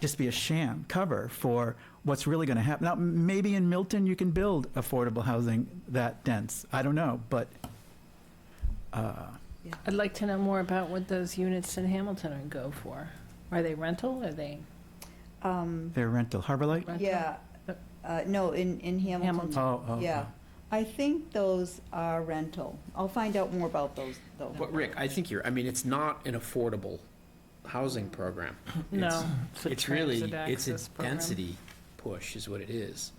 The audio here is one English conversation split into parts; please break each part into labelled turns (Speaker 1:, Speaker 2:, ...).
Speaker 1: just be a sham cover for what's really going to happen. Now, m- maybe in Milton, you can build affordable housing that dense. I don't know, but
Speaker 2: I'd like to know more about what those units in Hamilton are go for. Are they rental? Are they
Speaker 3: Um,
Speaker 1: they're rental. Harbor Light?
Speaker 2: rental?
Speaker 3: yeah, uh, no, in, in
Speaker 2: Hamilton.
Speaker 3: Hamilton.
Speaker 1: Oh, oh,
Speaker 3: Yeah,
Speaker 1: oh.
Speaker 3: I think those are rental. I'll find out more about those, though.
Speaker 4: But Rick, I think you're, I mean, it's not an affordable housing program.
Speaker 2: No.
Speaker 4: It's- It's really, it's a density push is what it is.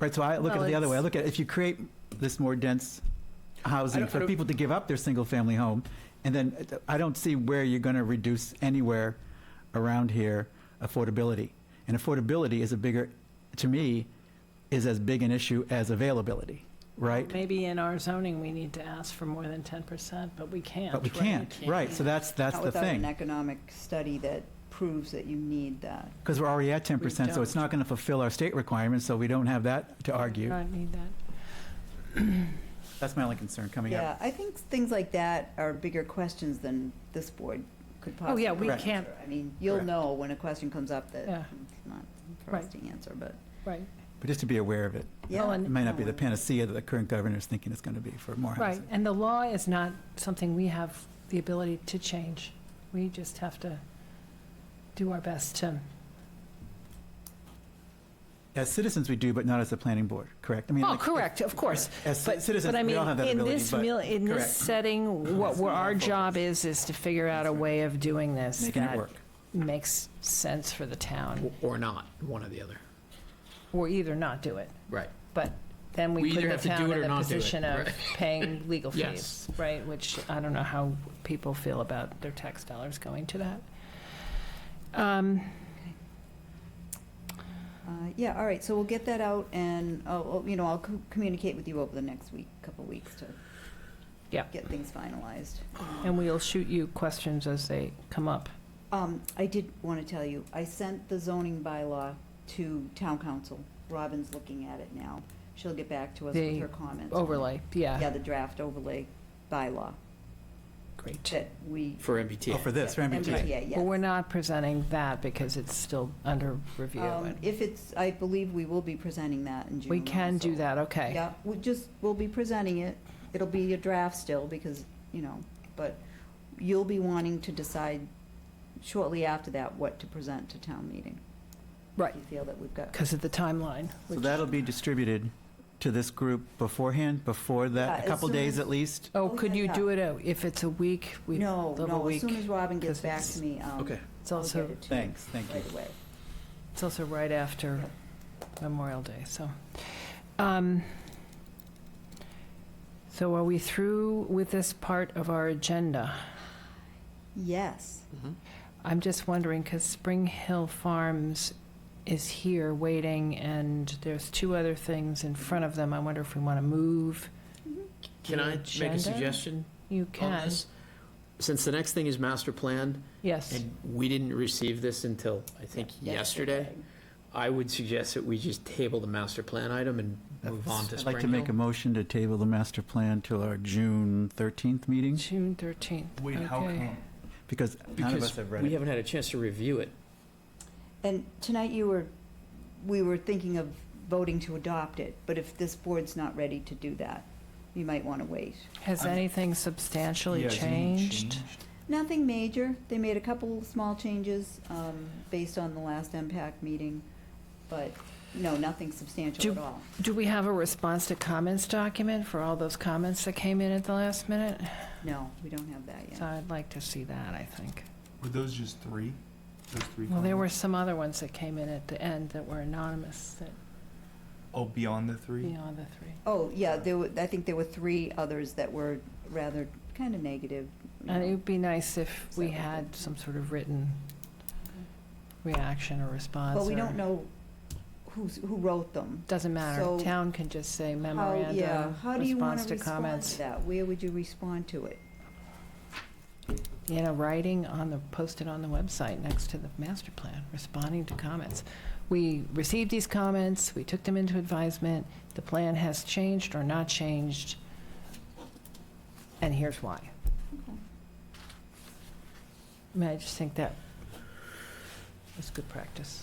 Speaker 1: Right, so I look at it
Speaker 2: Well,
Speaker 1: the other way. I
Speaker 2: it's-
Speaker 1: look at, it if you create this more dense housing
Speaker 4: don't- I
Speaker 1: for
Speaker 4: don't-
Speaker 1: people to give up their single-family home, and then uh, I don't see where you're going to reduce anywhere around here affordability. And affordability is a bigger, to me, is as big an issue as availability, right?
Speaker 2: Maybe in our zoning, we need to ask for more than 10%, but we can't.
Speaker 1: But we
Speaker 2: right?
Speaker 1: can't, right, so that's, that's
Speaker 3: Not
Speaker 1: the
Speaker 3: without an
Speaker 1: thing.
Speaker 3: economic study that proves that you need that.
Speaker 1: Because we're already at 10%, so
Speaker 2: don't.
Speaker 1: it's not going to fulfill our state requirements, so we don't have that to argue.
Speaker 2: I need that.
Speaker 1: That's my only concern coming up.
Speaker 3: Yeah, I think things like that are bigger questions than this board could
Speaker 2: Oh,
Speaker 3: possibly
Speaker 2: yeah,
Speaker 3: answer.
Speaker 2: we
Speaker 1: Correct.
Speaker 2: can't,
Speaker 3: I mean, you'll
Speaker 1: Correct.
Speaker 3: know when a question comes up that
Speaker 2: Yeah.
Speaker 3: it's not for us to answer, but,
Speaker 2: right.
Speaker 1: But just to be aware of it.
Speaker 3: yeah.
Speaker 2: Well, and-
Speaker 1: It may not be the panacea that the current governor is thinking it's going to be for more
Speaker 2: Right,
Speaker 1: housing.
Speaker 2: and the law is not something we have the ability to change. We just have to do our best to,
Speaker 1: As citizens, we do, but not as a planning board, correct? I mean,
Speaker 2: oh,
Speaker 1: like,
Speaker 2: correct, of course.
Speaker 1: As ci-
Speaker 2: But-
Speaker 1: citizens,
Speaker 2: but I
Speaker 1: we all
Speaker 2: mean,
Speaker 1: have that
Speaker 2: in
Speaker 1: ability,
Speaker 2: this
Speaker 1: but-
Speaker 2: mil- In this
Speaker 1: correct.
Speaker 2: setting, what,
Speaker 1: That's
Speaker 2: what
Speaker 1: not our
Speaker 2: our
Speaker 1: focus.
Speaker 2: job is, is to figure out a
Speaker 1: That's right.
Speaker 2: way of doing this
Speaker 1: Making it
Speaker 2: that
Speaker 1: work.
Speaker 2: makes sense for the town,
Speaker 4: Or- Or not, one or the other.
Speaker 2: or either not do it.
Speaker 4: Right.
Speaker 2: But then
Speaker 4: We
Speaker 2: we
Speaker 4: either
Speaker 2: put the
Speaker 4: have to do
Speaker 2: town
Speaker 4: it or
Speaker 2: in the
Speaker 4: not do it,
Speaker 2: position of
Speaker 4: right.
Speaker 2: paying legal
Speaker 4: Yes.
Speaker 2: fees, right? Which I don't know how people feel about their tax dollars going to that. Um,
Speaker 3: Uh, Yeah, all right, so we'll get that out, and, oh, oh, you know, I'll co- communicate with you over the next week, couple weeks to
Speaker 2: Yeah.
Speaker 3: get things finalized.
Speaker 2: And we'll shoot you questions as they come up.
Speaker 3: Um, I did want to tell you, I sent the zoning bylaw to town council. Robin's looking at it now. She'll get back to us with
Speaker 2: The
Speaker 3: her comments. on it.
Speaker 2: Overlay, yeah,
Speaker 3: Yeah, the draft overlay bylaw
Speaker 2: great.
Speaker 3: that we.
Speaker 4: For
Speaker 1: Oh,
Speaker 4: MBTA.
Speaker 1: for this, for MBTA.
Speaker 3: MBTA,
Speaker 2: Well,
Speaker 3: yes.
Speaker 2: we're not presenting that because it's still under review.
Speaker 3: Um,
Speaker 2: and
Speaker 3: If it's, I believe we will be presenting that in June.
Speaker 2: We can do
Speaker 3: also.
Speaker 2: that, okay.
Speaker 3: Yeah, we just, we'll be presenting it. It'll be a draft still because, you know, but you'll be wanting to decide shortly after that what to present to town meeting.
Speaker 2: Right.
Speaker 3: If you feel that we've got
Speaker 2: Because of the timeline.
Speaker 1: So
Speaker 2: which-
Speaker 1: that'll be distributed to this group beforehand, before
Speaker 3: Yeah,
Speaker 1: that, a
Speaker 3: as
Speaker 1: couple
Speaker 3: soon
Speaker 1: days
Speaker 3: as-
Speaker 1: at least?
Speaker 2: Oh,
Speaker 3: Oh,
Speaker 2: could
Speaker 3: yeah,
Speaker 2: you
Speaker 3: yeah.
Speaker 2: do it, uh, if it's a week? we
Speaker 3: No,
Speaker 2: live a
Speaker 3: no, as
Speaker 2: week.
Speaker 3: soon as Robin gets
Speaker 2: 'cause
Speaker 3: back
Speaker 2: it's-
Speaker 3: to me, um,
Speaker 4: Okay.
Speaker 2: It's
Speaker 3: I'll get
Speaker 2: also,
Speaker 3: it to you
Speaker 1: Thanks, thank you.
Speaker 3: right away.
Speaker 2: it's also right after Memorial Day, so. um, So are we through with this part of our agenda?
Speaker 3: Yes.
Speaker 2: I'm just wondering, because Spring Hill Farms is here waiting, and there's two other things in front of them. I wonder if we want to move. Oh,
Speaker 4: Can I make
Speaker 2: Agenda?
Speaker 4: a suggestion
Speaker 2: You
Speaker 4: on
Speaker 2: can.
Speaker 4: this? Since the next thing is master plan,
Speaker 2: Yes.
Speaker 4: and we didn't receive this until, I think, yesterday, I would suggest that we just table the master plan item and move on to
Speaker 1: I'd
Speaker 4: Spring
Speaker 1: like to make a
Speaker 4: Hill.
Speaker 1: motion to table the master plan till our June 13th meeting,
Speaker 2: June 13th.
Speaker 5: Wait, how
Speaker 2: Okay.
Speaker 5: come?
Speaker 1: because none of us
Speaker 4: Because
Speaker 1: have read
Speaker 4: we
Speaker 1: it.
Speaker 4: haven't had a chance to review it.
Speaker 3: And tonight you were, we were thinking of voting to adopt it, but if this board's not ready to do that, you might want to wait.
Speaker 2: Has
Speaker 5: I'm-
Speaker 2: anything substantially
Speaker 5: Yeah, has anything
Speaker 2: changed?
Speaker 3: Nothing major. They made a couple small changes um, based on the last MPAC meeting, but no, nothing substantial
Speaker 2: Do-
Speaker 3: at all.
Speaker 2: Do we have a response to comments document for all those comments that came in at the last minute?
Speaker 3: No, we don't have that
Speaker 2: So
Speaker 3: yet.
Speaker 2: I'd like to see that, I think.
Speaker 5: Were those just three? Those three?
Speaker 2: Well, there were
Speaker 5: comments?
Speaker 2: some other ones that came in at the end that were anonymous, that
Speaker 5: Oh, beyond the three?
Speaker 2: beyond the three.
Speaker 3: Oh, yeah, there were, I think there were three others that were rather kind of negative. you
Speaker 2: And
Speaker 3: know.
Speaker 2: it would be nice if
Speaker 3: Is
Speaker 2: we
Speaker 3: that what
Speaker 2: had
Speaker 3: they-
Speaker 2: some sort of written reaction or response.
Speaker 3: But we
Speaker 2: or-
Speaker 3: don't know who's, who wrote them.
Speaker 2: Doesn't
Speaker 3: So-
Speaker 2: matter. Town can just
Speaker 3: How-
Speaker 2: say
Speaker 3: yeah,
Speaker 2: memorandum,
Speaker 3: how do you want
Speaker 2: response
Speaker 3: to
Speaker 2: to
Speaker 3: respond to
Speaker 2: comments.
Speaker 3: that? Where would you respond to it?
Speaker 2: In a writing on the, posted on the website next to the master plan, responding to comments. We received these comments, we took them into advisement, the plan has changed or not changed, and here's why. I mean, I just think that It's good practice.